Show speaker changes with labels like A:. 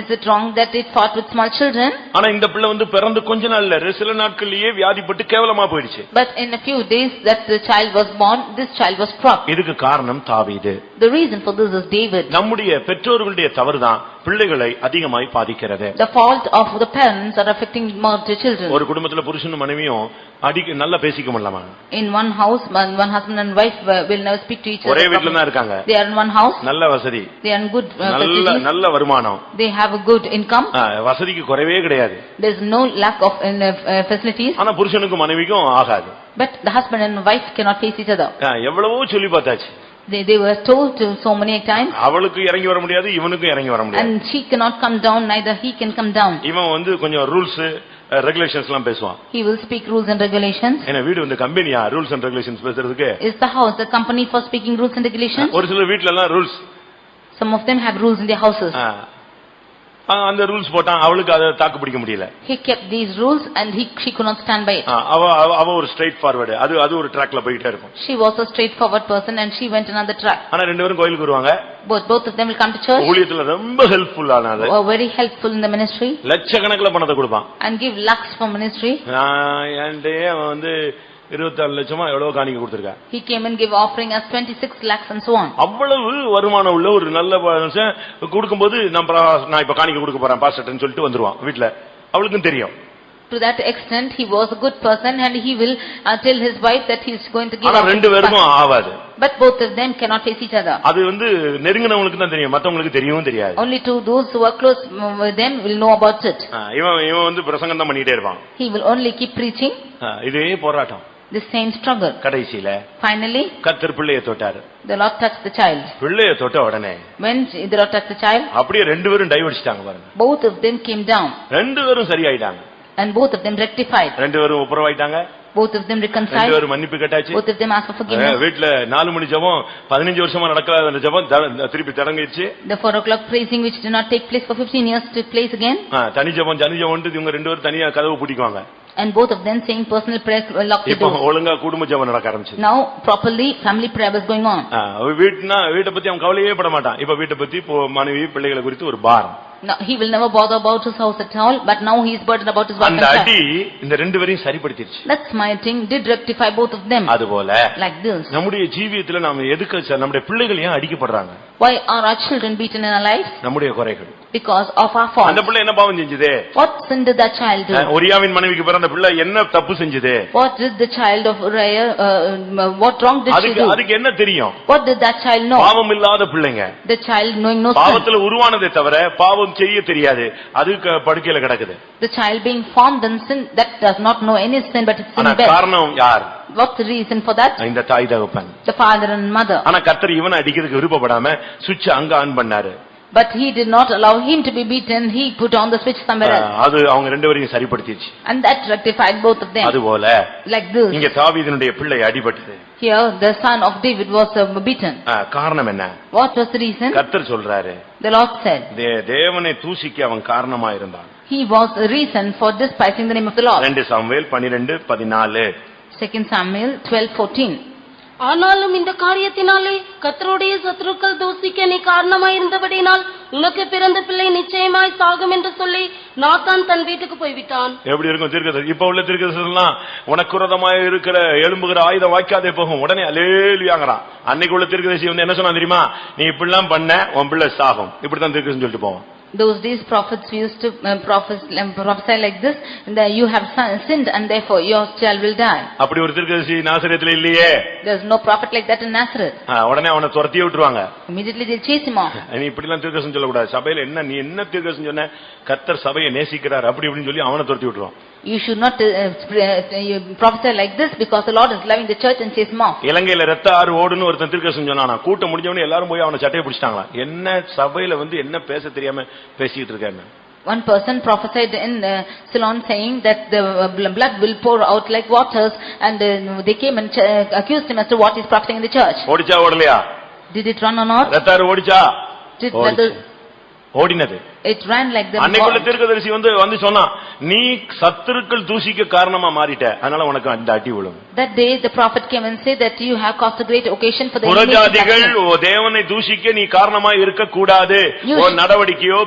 A: Is it wrong that it fought with small children?
B: ஆனா இந்த பிள்ளை வந்து பிறந்து கொஞ்ச நாள்ல ரெ- சில நாட்கள்லயே வியாதிப்பட்டு கேவலமா போயிடுச்சு
A: But in a few days that the child was born, this child was struck.
B: இதுக்கு காரணம் தாவீது
A: The reason for this is David.
B: நம்முடைய பெற்றோர்களுடைய தவறுதான் பிள்ளைகளை அதிகமாய் பாதிக்கிறது
A: The fault of the parents are affecting more to children.
B: ஒரு குடும்பத்துல புருஷனும் மனைவியும் அடிக்க நல்லா பேசிக்க முடியலாமா
A: In one house, one one husband and wife were- will never speak to each
B: ஒரே
A: other.
B: வீட்டுல
A: properly.
B: தான் இருக்காங்க
A: They are in one house,
B: நல்ல வசதி
A: they are in good uh,
B: நல்ல
A: facilities,
B: நல்ல வருமானம்
A: they have a good income,
B: ஆ, வசதிக்கு குறைவே கிடையாது
A: there's no lack of in, uh, uh, facilities,
B: ஆனா புருஷனுக்கும் மனைவிக்கும் ஆகாது
A: but the husband and wife cannot face each other.
B: ஆ, எவ்வளவோ சொல்லி பார்த்தாச்சு
A: They they were told to so many times,
B: அவளுக்கு இறங்கி வர முடியாது இவனுக்கும் இறங்கி வர முடியாது
A: and she cannot come down, neither he can come down.
B: இவன் வந்து கொஞ்சம் ரூல்ஸ் ரெகுலேஷன்ஸ் எல்லாம் பேசுவான்
A: He will speak rules and regulations.
B: ஏன்னா வீடு வந்து கம்பெனியா ரூல்ஸ் அண்ட் ரெகுலேஷன்ஸ் பேசுறதுக்கு
A: Is the house the company for speaking rules and regulations?
B: ஒரு சில வீட்ல எல்லாம் rules
A: Some of them have rules in their
B: Uh.
A: houses.
B: அந்த ரூல்ஸ் போட்டான் அவளுக்கு அதை தாக்கு பிடிக்க முடியல
A: He kept these rules and he she could not stand by it.
B: ஆ, அவ அவ- அவ ஒரு ஸ்ட்ரைட் ஃபார்வர்டு அது அது ஒரு ட்ராக்ல போயிட்டே இருக்கும்
A: She was a straightforward person and she went another track.
B: ஆனா ரெண்டு பேரும் கோயிலுக்கு வருவாங்க
A: Both, both of them will come to church,
B: ஊழியத்துல ரொம்ப ஹெல்ப்ஃபுல் ஆனாது
A: were very helpful in the ministry
B: லட்சக்கணக்கில் பணத்தை கொடுப்பான்
A: and give lakhs for ministry.
B: நான் என்கிட்டயே அவன் வந்து இருபத்தாறு லட்சமா எவ்வளவு காணிக்க கொடுத்துருக்கா
A: He came and gave offering as twenty-six lakhs and so on.
B: அவ்வளவு வருமானம் உள்ள ஒரு நல்ல மனுஷன் கொடுக்கும்போது நான் பிரா- நான் இப்ப காணிக்க கொடுக்க போறேன் பாஸ்டர்ன்னு சொல்லிட்டு வந்துருவான் வீட்ல அவளுக்கும் தெரியும்
A: To that extent, he was a good person and he will uh, tell his wife that he is going to give.
B: ஆனா
A: offering
B: ரெண்டு
A: to
B: பேருக்கும்
A: pastor.
B: ஆவாது
A: But both of them cannot face each other.
B: அது வந்து நெருங்கினவங்களுக்கு தான் தெரியும் மத்தவங்களுக்கு தெரியவும் தெரியாது
A: Only to those who are close mm, with them will know about it.
B: ஆ, இவன் இவன் வந்து பிரசங்கம் தான் பண்ணிட்டே இருப்பான்
A: He will only keep preaching
B: ஆ, இதே போராட்டம்
A: the same struggle.
B: கடைசியில
A: Finally,
B: கத்தர் பிள்ளைய தொட்டாரு
A: the Lord touched the child.
B: பிள்ளைய தொட்ட உடனே
A: When the Lord touched the child,
B: அப்படியே ரெண்டு பேரும் டைவர்டிச்சிட்டாங்க பாருங்க
A: both of them came down
B: ரெண்டு பேரும் சரியாயிட்டாங்க
A: and both of them rectified.
B: ரெண்டு பேரும் ஒப்புரவாயிட்டாங்க
A: Both of them
B: ரெண்டு
A: reconciled.
B: பேரும் மன்னிப்பு கேட்டாச்சு
A: Both of them asked for
B: ah
A: forgiveness.
B: வீட்ல நாலு மணி ஜெபம் பதினஞ்சு வருஷமா நடக்காத அந்த ஜெபம் த- திருப்பி தொடங்கிடுச்சு
A: The four o'clock praising which did not take place for fifteen years took place again
B: அஹ் தனி ஜெபம் தனி ஜெபம்ன்றது இவங்க ரெண்டு பேரும் தனியா கதவு பூட்டிக்குவாங்க
A: and both of them saying personal prayers were locked the
B: இப்போ
A: door.
B: ஒழுங்கா குடும்ப ஜெபம் நடக்க ஆரம்பிச்சு
A: Now properly family prayer was going on.
B: வீட்டுனா வீட்டை பத்தி அவன் கவலையே பட மாட்டான் இப்ப வீட்டை பத்தி இப்போ மனைவி பிள்ளைகளை குறித்து ஒரு பாரம்
A: Now he will never bother about his house at all but now he is burdened about his wife and
B: அந்த
A: child.
B: அடி இந்த ரெண்டு பேரையும் சரிப்படுத்திடுச்சு
A: That's my thing did rectify both of them
B: அதுபோல
A: like this.
B: நம்முடைய ஜீவியத்துல நாம எதுக்கு ச- நம்முடைய பிள்ளைகள் ஏன் அடிக்கப்படுறாங்க
A: Why are our children beaten in our lives?
B: நம்முடைய குறைகள்
A: Because of our
B: அந்த
A: faults.
B: பிள்ளை என்ன பாவம் செஞ்சது
A: What sin did that child do?
B: அஹ் ஒரியாவின் மனைவிக்கு பிறந்த பிள்ளை என்ன தப்பு செஞ்சது
A: What did the child of Raya, uh, um, what wrong did she
B: அதுக்கு
A: do?
B: அதுக்கு என்ன தெரியும்
A: What did that child know?
B: பாவம் இல்லாத பிள்ளைங்க
A: The child knowing no sin.
B: பாவத்துல உருவானதே தவிர பாவம் செய்ய தெரியாது அது க- படுக்கையில கிடக்குது
A: The child being formed in sin, that does not know any sin but it's
B: ஆனா
A: in bed.
B: காரணம் யார்
A: What's the reason for that?
B: இந்த தாய் தகப்பன்
A: The father and mother.
B: ஆனா கர்த்தர் இவனை அடிக்கிறதுக்கு விருப்பப்படாம சுவிட்ச் அங்க ஆன் பண்ணாரு
A: But he did not allow him to be beaten, he put on the switch somewhere else.
B: அது அவங்க ரெண்டு பேரையும் சரிப்படுத்திடுச்சு
A: And that rectified both of them.
B: அதுபோல
A: Like this.
B: இங்க தாவீதினுடைய பிள்ளை அடிபட்டது
A: Here, the son of David was uh, beaten.
B: ஆ, காரணம் என்ன
A: What was the reason?
B: கர்த்தர் சொல்றாரு
A: The Lord said.
B: தே- தேவனை தூசிக்க அவன் காரணமா இருந்தான்
A: He was the reason for despising the name of the Lord.
B: ரெண்டு சாமுவேல் பனிரெண்டு பதினாலு
A: Second Samuel twelve fourteen.
C: ஆனாலும் இந்த காரியத்தினாலே கர்த்தருடைய சத்துருக்கள் தூசிக்க நீ காரணமாய் இருந்தபடினால் உனக்கு பிறந்த பிள்ளை நிச்சயமாய் சாகும் என்று சொல்லி நாத்தான் தன் வீட்டுக்கு போய்விட்டான்
B: எப்படி இருக்கும் தீர்க்கதரிசி இப்ப உள்ள தீர்க்கதரிசிலாம் உனக்கு விரோதமாக இருக்கிற எழும்புகிற ஆயுதம் வாய்க்காதே போகும் உடனே அலேலியாங்கிறான் அன்னைக்கு உள்ள தீர்க்கதரிசி வந்து என்ன சொன்னா தெரியுமா நீ இப்படிலாம் பண்ண உன் பிள்ளை சாகும் இப்படித்தான் தீர்க்கதரிசி சொல்லிட்டு போவோம்
A: Those days prophets used to uh, prophes- um, prophesy like this, that you have sin- sinned and therefore your child will die.
B: அப்படி ஒரு தீர்க்கதரிசி நாசரியத்துல இல்லையே
A: There's no prophet like that in Nazareth.
B: ஆ, உடனே அவனை துரத்தி விட்டுருவாங்க
A: Immediately they chase him off.
B: நீ இப்படிலாம் தீர்க்கதரிசி சொல்லக்கூடாது சபையில என்ன நீ என்ன தீர்க்கதரிசி சொன்ன கர்த்தர் சபையை நேசிக்கிறார் அப்படி இப்படின்னு சொல்லி அவனை துரத்தி விட்டுருவான்
A: You should not uh, sp- uh, you prophesy like this because the Lord is loving the church and chase him off.
B: இலங்கையில ரத்த ஆறு ஓடுன்னு ஒருத்தன் தீர்க்கதரிசி சொன்னானா கூட்டம் முடிஞ்சவனே எல்லாரும் போய் அவனை சட்டையை பிடிச்சிட்டாங்களா என்ன சபையில வந்து என்ன பேச தெரியாம பேசிட்டு இருக்கான்னு
A: One person prophesied in uh, Ceylon saying that the uh, bl- blood will pour out like waters and uh, they came and ch- uh, accused him as to what he's prophesying in the church.
B: ஓடிச்சா ஓடலையா
A: Did it run or not?
B: ரத்தாறு ஓடிச்சா
A: Did
B: ஓடிச்சு.
A: whether
B: ஓடினது
A: it ran like the
B: அன்னைக்குள்ள
A: wa-
B: தீர்க்கதரிசி வந்து வந்து சொன்னா நீ சத்துருக்கள் தூசிக்க காரணமா மாறிட்ட அதனால உனக்கு அந்த அடி விழும்
A: That day the prophet came and said that you have caused a great occasion for the enemy to attack
B: புறஜாதிகள்
A: you.
B: தேவனை தூசிக்க நீ காரணமா இருக்க கூடாது
A: You
B: உன்
A: should-
B: நடவடிக்கையோ